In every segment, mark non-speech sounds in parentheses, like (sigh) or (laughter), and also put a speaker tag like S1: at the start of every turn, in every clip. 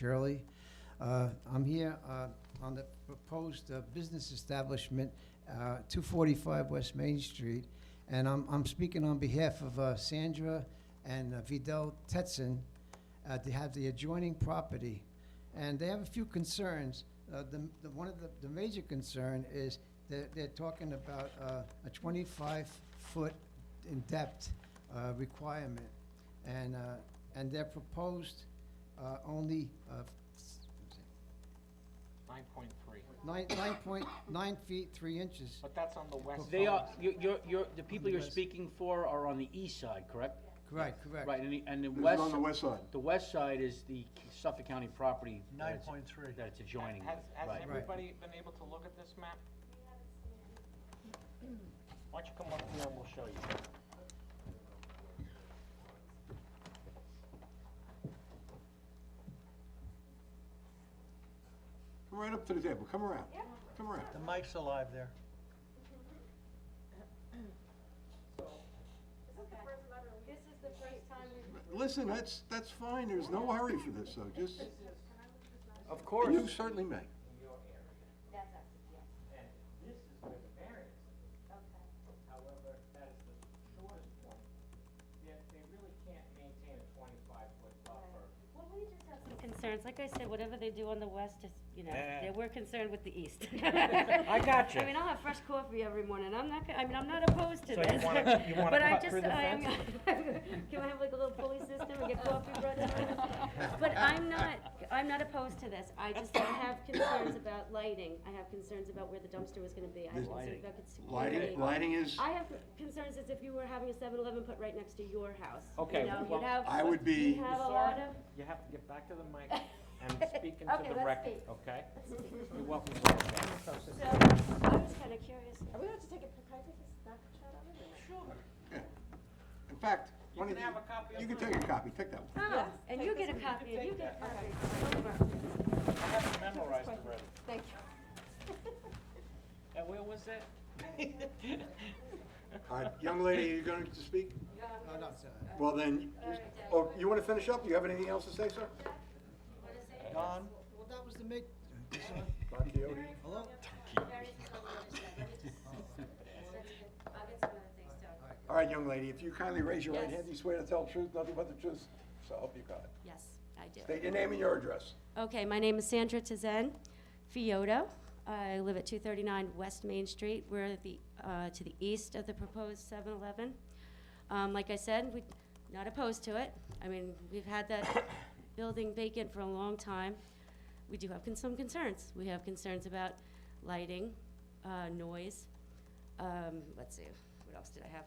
S1: Shirley. Uh, I'm here uh, on the proposed uh, business establishment, uh, 245 West Main Street, and I'm I'm speaking on behalf of uh, Sandra and uh, Vidal Tetson. uh, They have the adjoining property, and they have a few concerns. Uh, The the- One of the the major concern is that they're talking about uh, a 25-foot in depth uh, requirement, and, uh, and they're proposed uh, only uh,
S2: Nine point three,
S1: nine, nine point, nine feet, three inches.
S2: but that's on the west side.
S3: They are, you you're, you're, the people you're
S1: west.
S3: speaking for are on the east side, correct?
S1: Correct, correct.
S3: Right, and the, and the
S4: This is
S3: west.
S4: on the west side.
S3: The west side is the Suffolk County property. that it's-
S5: 9.3.
S3: That it's adjoining
S2: Has,
S3: with,
S2: has
S3: right.
S2: everybody been able to look at this map? Why don't you come up here and we'll show you.
S4: Come right up to the table, come around, come around.
S5: The mic's alive there.
S6: This is the first time we've.
S4: Listen, that's, that's fine, there's no hurry for this, though, just,
S3: Of
S4: you
S3: course.
S4: certainly may.
S6: That's us, yeah.
S7: And this is where the variance is.
S6: Okay.
S7: However, that is the shortest point. They, they really can't maintain a twenty-five foot buffer.
S6: Well, we just have some concerns. Like I said, whatever they do on the west is, you know,
S2: Yeah.
S6: they- we're concerned with the east.
S2: (laughs) I gotcha.
S6: I mean, I'll have fresh coffee every morning. I'm not, go- I mean, I'm not opposed to
S2: So
S6: this.
S2: you wanna- you wanna
S6: (laughs) But I
S2: cut
S6: just,
S2: through the
S6: I'm- (laughs) Can I have like a little pulley system and get coffee brought in?
S2: (laughs)
S6: But I'm not, I'm not opposed to this. I just have concerns about lighting. I have concerns about where the dumpster was gonna be. I have concerns about security.
S4: Lighting, lighting is,
S6: I have concerns as if you were having a 7-Eleven put right next to your house. You
S2: Okay,
S6: know, you'd
S2: well-
S6: have-
S4: I would be-
S6: You'd have a
S2: Sir,
S6: lot of,
S2: You have to get back to the mic
S7: (laughs)
S2: and speak into
S6: Okay,
S2: the
S6: let's
S2: record,
S6: speak.
S2: okay? You're welcome to look at it.
S6: so, I'm just kinda curious. Are we allowed to take a, can I take a snapshot of it?
S4: in fact,
S2: You
S4: why
S2: can
S4: don't
S2: have a copy
S4: you,
S2: of
S4: you can
S2: mine.
S4: take a copy, take that one.
S6: Oh, and you get a copy, and you get a copy.
S2: I have it memorized already.
S6: Thank you.
S7: (laughs)
S2: And where was that?
S4: All right, young lady, are you going to speak?
S1: Oh, no, it's, uh,
S4: Well, then, oh, you want to finish up? Do you have anything else to say, sir?
S5: Don,
S1: Well, that was the make,
S4: Don Quixote?
S1: hello?
S4: (laughs)
S6: I'll get some other things done.
S4: All right, young lady, if you kindly raise your right hand, you swear to tell the truth, nothing but the truth, so help you God.
S6: Yes, I do.
S4: State your name and your address.
S6: Okay, my name is Sandra Tizen Fiota. I live at 239 West Main Street. We're at the, uh, to the east of the proposed 7-Eleven. Um, Like I said, we're not opposed to it. I mean, we've had that (coughs) building vacant for a long time. We do have con- some concerns. We have concerns about lighting, uh, noise. um, Let's see, what else did I have?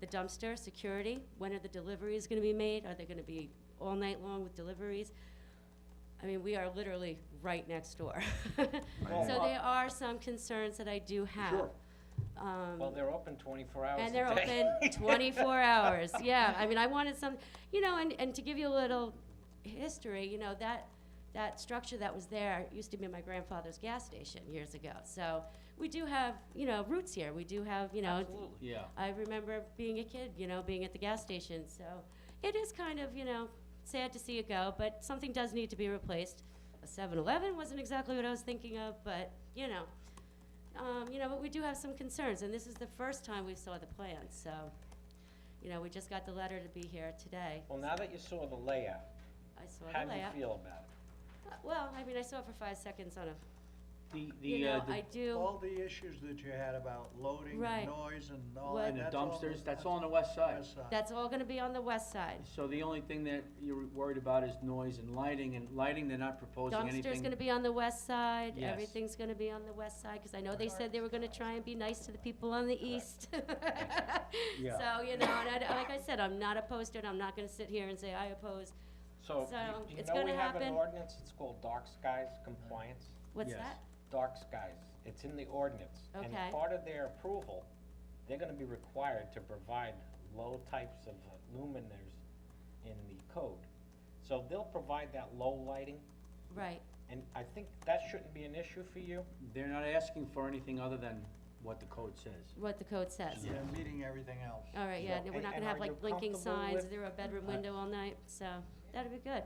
S6: The dumpster, security, when are the deliveries going to be made? Are they going to be all night long with deliveries? I mean, we are literally right next door. (laughs) So there are some concerns that I do have.
S4: Sure.
S6: Um,
S2: Well, they're open twenty-four hours
S6: and they're open
S2: (laughs)
S6: 24 hours. Yeah, I mean, I wanted some, you know, and, and to give you a little history, you know, that, that structure that was there used to be my grandfather's gas station years ago. So we do have, you know, roots here. We do have, you know,
S3: Absolutely, yeah.
S6: I remember being a kid, you know, being at the gas station. So it is kind of, you know, sad to see it go, but something does need to be replaced. A 7 Eleven wasn't exactly what I was thinking of, but, you know. Um, you know, but we do have some concerns, and this is the first time we saw the plan, so, you know, we just got the letter to be here today.
S2: Well, now that you saw the layout,
S6: I saw
S2: how
S6: the
S2: do you
S6: layout.
S2: feel about it?
S6: Uh, Well, I mean, I saw it for five seconds on a,
S3: The,
S6: you
S3: the,
S6: know,
S3: uh, the-
S6: I do,
S5: all the issues that you had about loading
S6: Right.
S5: and noise and all
S6: Well-
S5: that,
S3: and the
S5: that's all
S3: dumpsters,
S5: the-
S3: that's all on the west side.
S5: west side.
S6: that's all gonna be on the west side.
S3: So the only thing that you're worried about is noise and lighting, and lighting, they're not proposing anything.
S6: Dumpster's gonna be on the west side,
S3: Yes.
S6: everything's gonna be on the west side, cause I know they said they were gonna try and be nice to the people on the east. (laughs)
S3: Yeah.
S6: So, you know, and I, like I said, I'm not opposed to it, I'm not gonna sit here and say I oppose,
S2: So,
S6: So,
S2: you- you
S6: it's
S2: know we
S6: gonna
S2: have an
S6: happen.
S2: ordinance, it's called dark skies compliance?
S6: what's
S3: Yes.
S6: that?
S2: dark skies, it's in the ordinance.
S6: Okay.
S2: And part of their approval, they're gonna be required to provide low types of luminaires in the code. So they'll provide that low lighting,
S6: Right,
S2: and I think that shouldn't be an issue for you.
S3: They're not asking for anything other than what the code says.
S6: what the code says.
S5: Yeah, meeting everything else.
S6: All right, yeah,
S2: So,
S6: we're
S2: and-
S6: not
S2: and
S6: gonna
S2: are
S6: have
S2: you
S6: like blinking
S2: comfortable
S6: signs,
S2: with-
S6: there a bedroom window all night, so that'd be good.